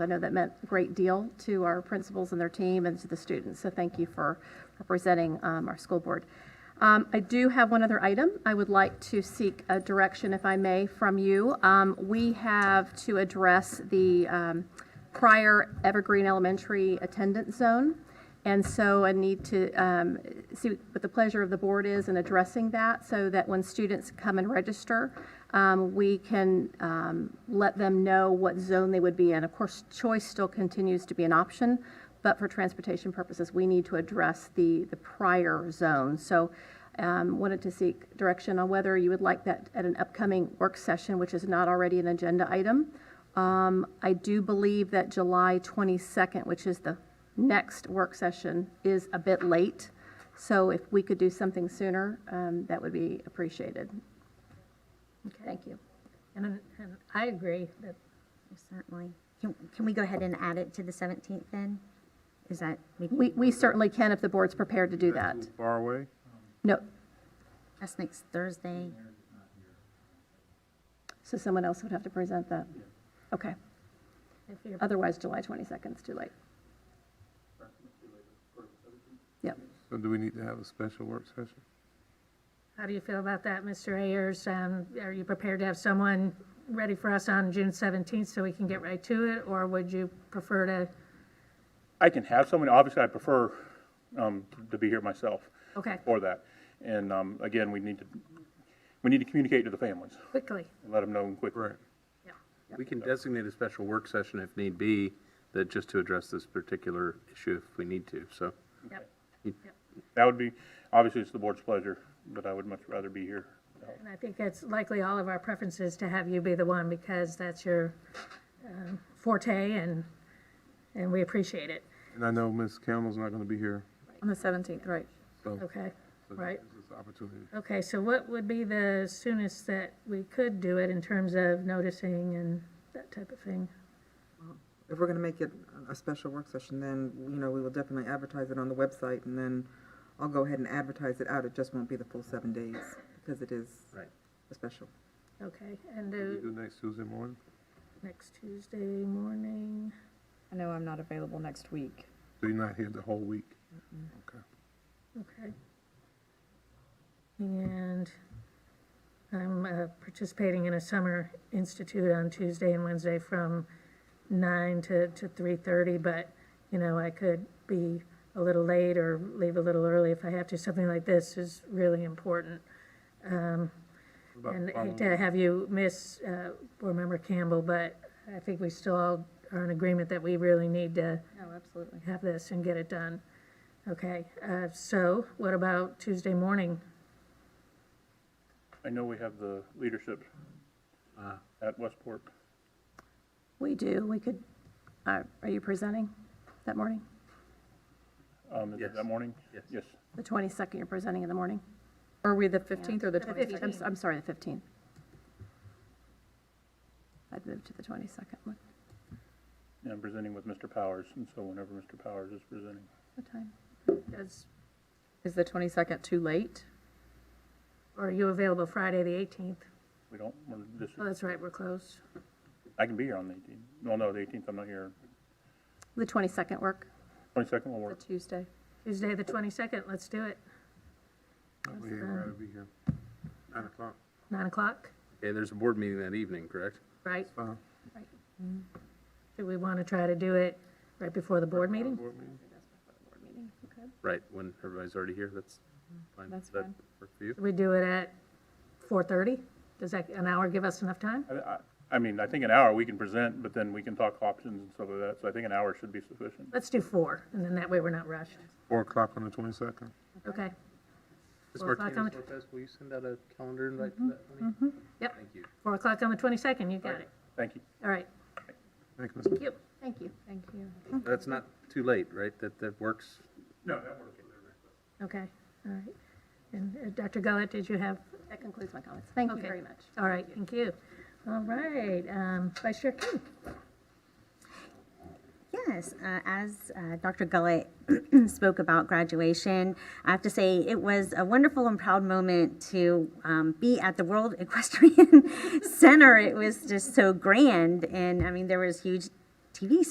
I know that meant a great deal to our principals and their team and to the students, so thank you for representing um, our school board. Um, I do have one other item. I would like to seek a direction, if I may, from you. Um, We have to address the um, prior Evergreen Elementary attendance zone, and so I need to um, see what the pleasure of the board is in addressing that, so that when students come and register, um, we can um, let them know what zone they would be in. Of course, choice still continues to be an option, but for transportation purposes, we need to address the, the prior zone. So um, wanted to seek direction on whether you would like that at an upcoming work session, which is not already an agenda item. Um, I do believe that July 22nd, which is the next work session, is a bit late. So if we could do something sooner, um, that would be appreciated. Thank you. And, and I agree that, Certainly. Can, can we go ahead and add it to the 17th then? Is that? We, we certainly can if the board's prepared to do that. Far away? No, That's next Thursday. so someone else would have to present that. Okay, if you're, otherwise July 22nd is too late. Yep. So do we need to have a special work session? how do you feel about that, Mr. Ayers? Um, are you prepared to have someone ready for us on June seventeenth so we can get right to it? Or would you prefer to, I can have someone, obviously, I prefer um, to be here myself. Okay. For that. And um, again, we need to, we need to communicate to the families, quickly? and let them know quickly. Yeah. We can designate a special work session if need be, that just to address this particular issue if we need to, so. Yep. That would be, obviously, it's the board's pleasure, but I would much rather be here. And I think that's likely all of our preferences to have you be the one because that's your um, forte and, and we appreciate it. And I know Ms. Campbell's not going to be here, On the 17th, right. Oh, so. Okay, right? This is an opportunity. Okay, so what would be the soonest that we could do it in terms of noticing and that type of thing? If we're gonna make it a special work session, then, you know, we will definitely advertise it on the website, and then I'll go ahead and advertise it out, it just won't be the full seven days, because it is Right. a special. Okay, and We do do next Tuesday morning? next Tuesday morning? I know I'm not available next week. So you're not here the whole week? Okay. Okay. And I'm uh, participating in a summer institute on Tuesday and Wednesday from nine to, to three thirty, but, you know, I could be a little late or leave a little early if I have to. Something like this is really important. Um, About And following- hate to have you miss uh, Board Member Campbell, but I think we still all are in agreement that we really need to Oh, absolutely. have this and get it done. Okay, uh, so what about Tuesday morning? I know we have the leadership at Westport. We do, we could, uh, are you presenting that morning? Um, is it Yes. that morning? Yes. Yes. The 22nd, you're presenting in the morning? Are we the 15th or the I'm 20th? s- I'm sorry, the 15th. I'd move to the 22nd one. And I'm presenting with Mr. Powers, and so whenever Mr. Powers is presenting. What time? Does- Is the 22nd too late? Or are you available Friday, the 18th? We don't, we're, this, Oh, that's right, we're closed. I can be here on the eighteenth. Well, no, the eighteenth, I'm not here. The 22nd work? Twenty-second will work. Tuesday. Tuesday, the 22nd, let's do it. I'll be here, I'll be here. Nine o'clock. 9 o'clock, Okay, there's a board meeting that evening, correct? right? Fine. Do we want to try to do it right before the board meeting? Board meeting? Right, when everybody's already here, that's fine. That's Does that fine. work for you? Should we do it at 4:30? Does that, an hour give us enough time? I, I- I mean, I think an hour we can present, but then we can talk options and stuff like that, so I think an hour should be sufficient. Let's do 4, and then that way we're not rushed. Four o'clock on the twenty-second? Okay, Ms. Well, if I Martinez come- Lopez, will you send out a calendar invite to that? honey? Yep. Thank you. 4 o'clock on the 22nd, you got it. Thank you. All right, Thank you, Ms. thank you. Thank you. Thank you. That's not too late, right? That, that works? No, that works. Okay, all right. And uh, Dr. Gullett, did you have, That concludes my comments. Thank you Okay. very much. all right, thank you. All right, um, Vice Chair King. Yes, uh, as uh, Dr. Gullett spoke about graduation, I have to say it was a wonderful and proud moment to um, be at the World Equestrian Center. It was just so grand, and I mean, there was huge TV